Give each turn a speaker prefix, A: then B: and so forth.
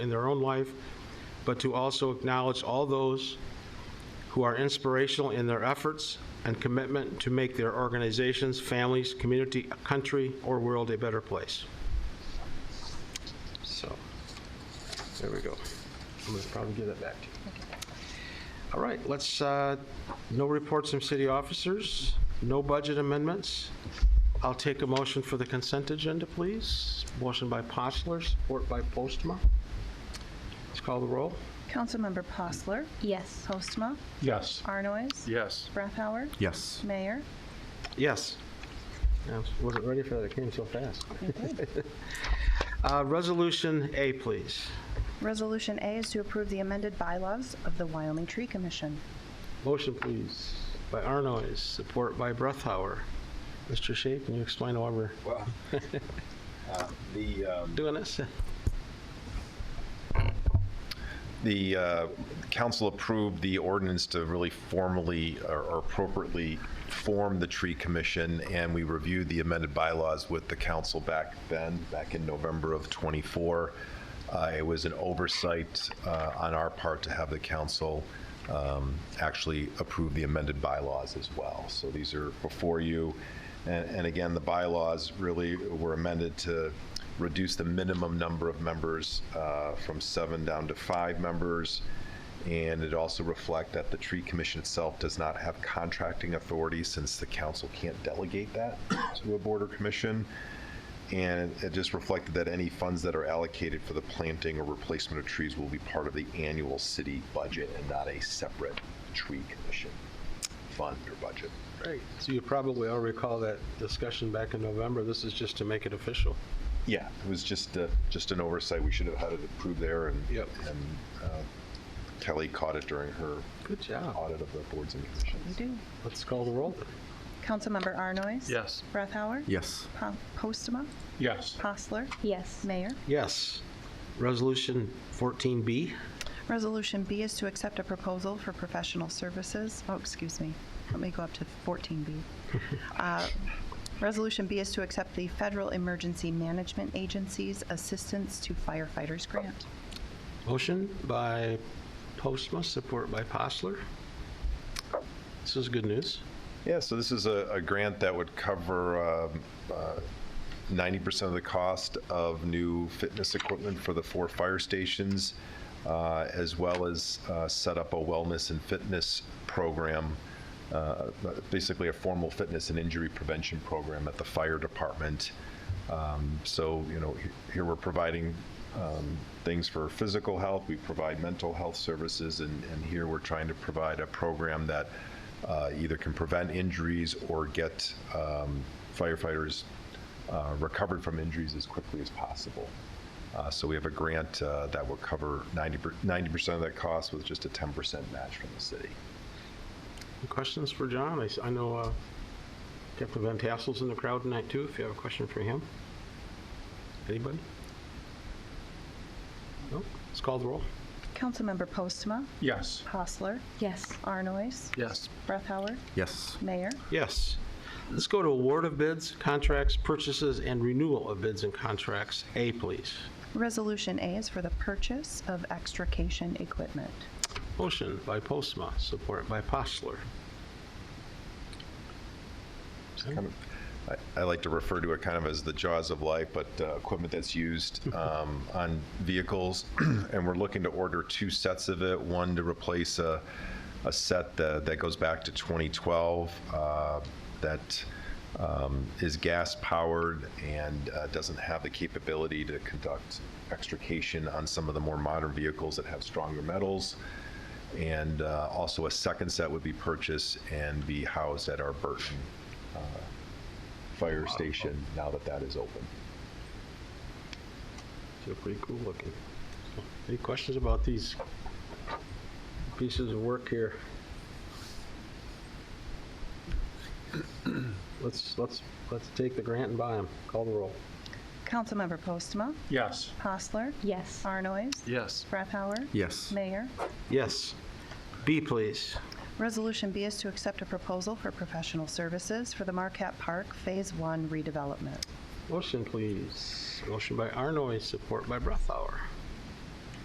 A: in their own life, but to also acknowledge all those who are inspirational in their efforts and commitment to make their organizations, families, community, country, or world a better place. So, there we go. I'm going to probably give that back to you. All right, let's, uh, no reports from city officers, no budget amendments. I'll take a motion for the consent agenda, please. Motion by Postler, support by Postma. Let's call the roll.
B: Councilmember Postler,
C: Yes.
B: Postma,
D: Yes.
B: Arnoyes,
D: Yes.
B: Brethauer,
E: Yes.
B: Mayor.
A: Yes. Yeah, Wasn't ready for that, it came so fast. Uh, Resolution A, please.
B: Resolution A is to approve the amended bylaws of the Wyoming Tree Commission.
A: Motion, please, by Arnoyes, support by Breathauer. Mr. Shea, can you explain why we're
F: Well, uh, the, um,
A: doing this?
F: the uh, council approved the ordinance to really formally or or appropriately form the tree commission, and we reviewed the amended bylaws with the council back then, back in November of '24. Uh, It was an oversight uh, on our part to have the council um, actually approve the amended bylaws as well. So these are before you. And and again, the bylaws really were amended to reduce the minimum number of members uh, from seven down to five members. And it also reflect that the tree commission itself does not have contracting authority since the council can't delegate that to a board or commission. And it just reflected that any funds that are allocated for the planting or replacement of trees will be part of the annual city budget and not a separate tree commission fund or budget.
A: Great. So you probably all recall that discussion back in November. This is just to make it official.
F: Yeah, it was just, uh, just an oversight. We should have had it approved there and.
A: Yep.
F: And uh, Kelly caught it during her
A: Good job.
F: audit of the boards and commissions.
B: We do.
A: Let's call the roll.
B: Councilmember Arnoyes.
D: Yes.
B: Brethauer.
E: Yes.
B: Po- Postma,
D: Yes.
B: Postler,
C: Yes.
B: Mayor.
A: Yes. Resolution 14B.
B: Resolution B is to accept a proposal for professional services, oh, excuse me, let me go up to 14B. Uh, Resolution B is to accept the Federal Emergency Management Agency's Assistance to Firefighters Grant.
A: Motion by Postma, support by Postler. This is good news.
F: Yeah, so this is a, a grant that would cover um, uh, 90% of the cost of new fitness equipment for the four fire stations, uh, as well as uh, set up a wellness and fitness program, uh, basically a formal fitness and injury prevention program at the fire department. Um, So, you know, he- here we're providing um, things for physical health, we provide mental health services, and, and here we're trying to provide a program that uh, either can prevent injuries or get um, firefighters uh, recovered from injuries as quickly as possible. Uh, So we have a grant uh, that will cover 90, per- 90% of that cost with just a 10% match from the city.
A: Any Questions for John? I s- I know uh, Captain Van Tassel's in the crowd tonight, too, if you have a question for him. Anybody? No? Let's call the roll.
B: Councilmember Postma,
D: Yes.
B: Hostler,
C: Yes.
B: Arnoyes,
D: Yes.
B: Brethauer,
E: Yes.
B: Mayor.
A: Yes. Let's go to award of bids, contracts, purchases, and renewal of bids and contracts. A, please.
B: Resolution A is for the purchase of extrication equipment.
A: Motion by Postma, support by Postler.
F: Kind of- I- I like to refer to it kind of as the jaws of life, but uh, equipment that's used um, on vehicles. And we're looking to order two sets of it, one to replace a, a set that, that goes back to 2012 uh, that um, is gas-powered and uh, doesn't have the capability to conduct extrication on some of the more modern vehicles that have stronger metals. And uh, also a second set would be purchased and be housed at our Burton fire station now that that is open.
A: They're pretty cool looking. Any questions about these pieces of work here? Let's, let's, let's take the grant and buy them. Call the roll.
B: Councilmember Postma,
D: Yes.
B: Hostler,
C: Yes.
B: Arnoyes,
D: Yes.
B: Brethauer,
E: Yes.
B: Mayor.
A: Yes. B, please.
B: Resolution B is to accept a proposal for professional services for the Marquette Park Phase 1 redevelopment.
A: Motion, please. Motion by Arnoy, support by Breathauer.